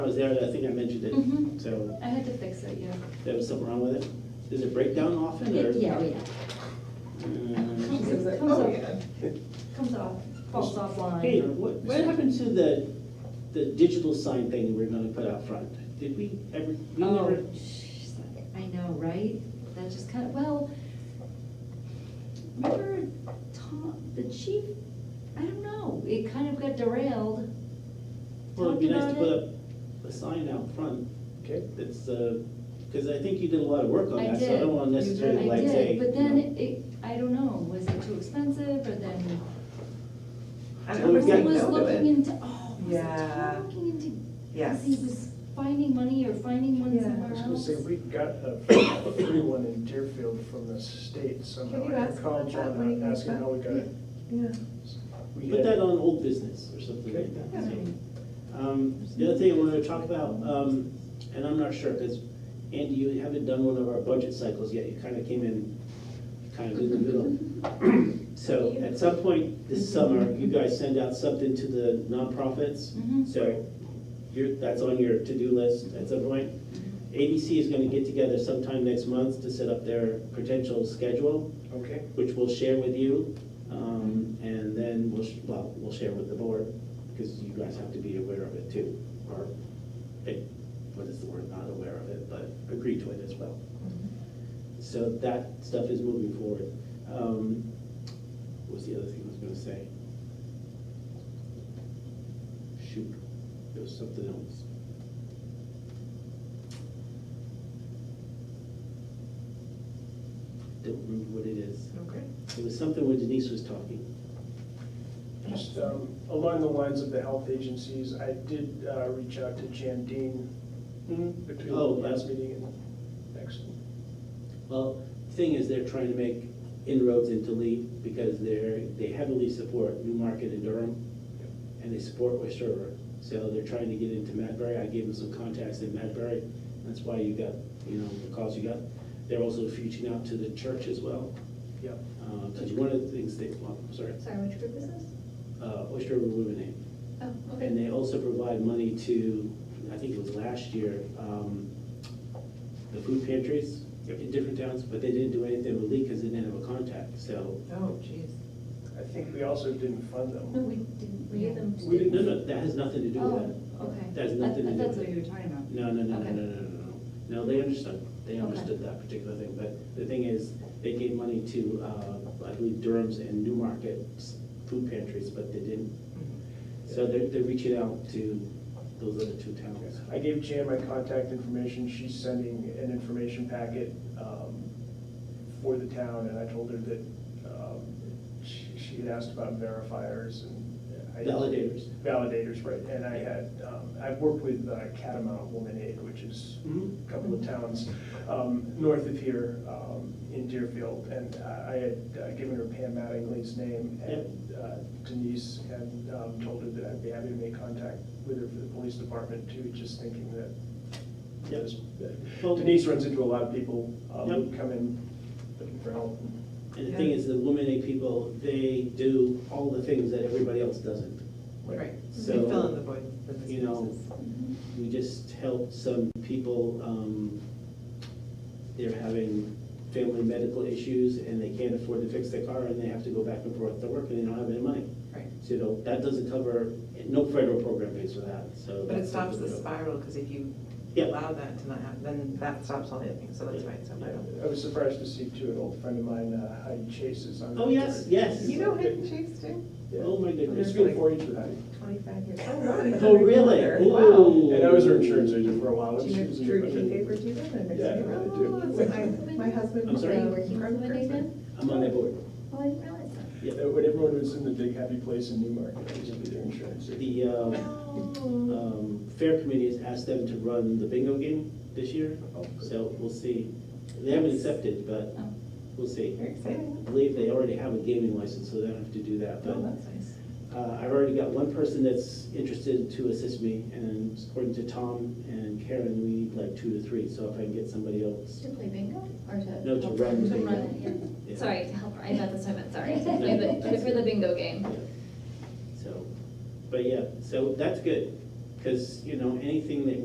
I was there, I think I mentioned Mhm. it, so I had to fix it, yeah. there was something wrong with it. Does it break down often or? Yeah, oh, yeah. Uh, Comes- It's like, comes oh, off- yeah. Comes off, falls offline. Hey, what, what happened to the, the digital sign thing we were gonna put out front? Did we ever, we never, Oh, sh- I know, right? That just kind of, well, remember Tom, the chief, I don't know, it kind of got derailed. well, it'd be Talked nice to about put it. up a sign out front. Okay. That's, uh, cause I think you did a lot of work on I that, so I did. don't wanna necessarily I like say. did, but then you know. it, I don't know, was it too expensive or then? I Well, we've got- remember He saying was no to looking it. into, oh, was it Yeah. Tom looking into, Yes. because he was finding money or finding one Yeah. somewhere I was gonna else? say, we got a a free one in Deerfield from the state somehow. Can you I ask called about that John when he comes Asking how we got it. Yeah. We Put had- that on old business or something like that. Okay. so. Um, The other thing I wanted to talk about, um, and I'm not sure, because Andy, you haven't done one of our budget cycles yet. You kind of came in kind of in the middle. So at some point this summer, you guys send out something to the nonprofits. Mhm. So you're, that's on your to-do list at some point. ABC is going to get together sometime next month to set up their potential schedule Okay, which we'll share with you, um, and then we'll, sh- well, we'll share with the board, because you guys have to be aware of it too, or, eh, what is the word, not aware of it, but agree to it as well. So that stuff is moving forward. Um, What was the other thing I was gonna say? Shoot, there was something else. Don't remember what it is. Okay. It was something when Denise was talking. just um, along the lines of the health agencies, I did uh, reach out to Jan Dean between the Oh, last yeah. meeting and next. Well, the thing is, they're trying to make inroads into Lee because they're, they heavily support Newmarket and Durham, and they support West River. So they're trying to get into Madbury. I gave them some contacts in Madbury. That's why you got, you know, the calls you got. They're also reaching out to the church as well. Yep. Because one of the things they, well, I'm sorry, Sorry, which group is this? uh, West River Women Aid. Oh, And they also provide money to, I think it was last year, um, the food pantries in different towns, but they didn't do anything with Lee because they didn't have a contact, so. Oh, jeez. I think we also didn't fund them. No, we didn't, we Yeah. them. We didn't, no, no, that has nothing to do with that. Oh, okay. That has I- nothing to I- do That's with what it. you were talking about. No, no, no, no, Okay. no, no, no, no. No, they understood, they Okay. understood that particular thing, but the thing is, they gave money to, uh, I believe Durham's and Newmarket's food pantries, but they didn't. So they're, they're reaching out to those other two towns. I gave Jan my contact information, she's sending an information packet um, for the town, and I told her that um, she she had asked about verifiers and. I- Validators. Validators, right, and I had, um, I've worked with uh, Catamount Woman Aid, which is Mhm. a couple of towns um, north of here um, in Deerfield, and I I had uh, given her Pam Mattingly's name, and uh, Denise had um, told her that I'd be happy to make contact with her for the police department too, just thinking that Yep. yes, Well- Denise runs into a lot of people um, who Yep. come in looking for help. And the thing is, the women and people, they do all the things that everybody else doesn't. Right. So- You fill in the void for the You know, spaces. We just helped some people, um, they're having family medical issues and they can't afford to fix their car and they have to go back and forth to work and they don't have any money. Right. So you know, that doesn't cover, no federal program pays for that, so. But it that's stops something the we don't- spiral, because if you Yeah. allow that to not happen, then that stops all the other things, so that's Yeah. right, so. I Yeah. don't- I was surprised to see too, an old friend of mine, uh, Heidi Chase is on. Oh, the yes, board. yes. You know Hidden Chase too? Yeah. Oh, my goodness. It's been four years with Heidi. Twenty-five years. Oh, wow, you Oh, never really? knew her. Wow. Ooh. And I was her insurance agent for a while. Do She you was know in Drew the- King Paper too then? Next Yeah, thing you I know, do. it's- I- My husband. I'm sorry? Are you uh, working with Kirk women aid Kirkman. now? I'm on that board. Oh, I didn't realize that. Yeah. Uh, When everyone was in the big happy place in Newmarket, I was with their insurance agent. The, uh, Oh. um, fair committee has asked them to run the bingo game this year, Oh, good. so we'll see. They haven't accepted, but Oh. we'll see. Very I exciting. believe they already have a gaming license, so they don't have to do that, Oh, but that's nice. uh, I've already got one person that's interested to assist me, and according to Tom and Karen, we need like two to three, so if I can get somebody else. To play bingo or to? No, to help run her? bingo. To run it, yeah. yeah, Sorry, to help her, I thought that's what I meant, sorry. No, Yeah, but that's- for the bingo game. yeah. So, but yeah, so that's good. Because, you know, anything that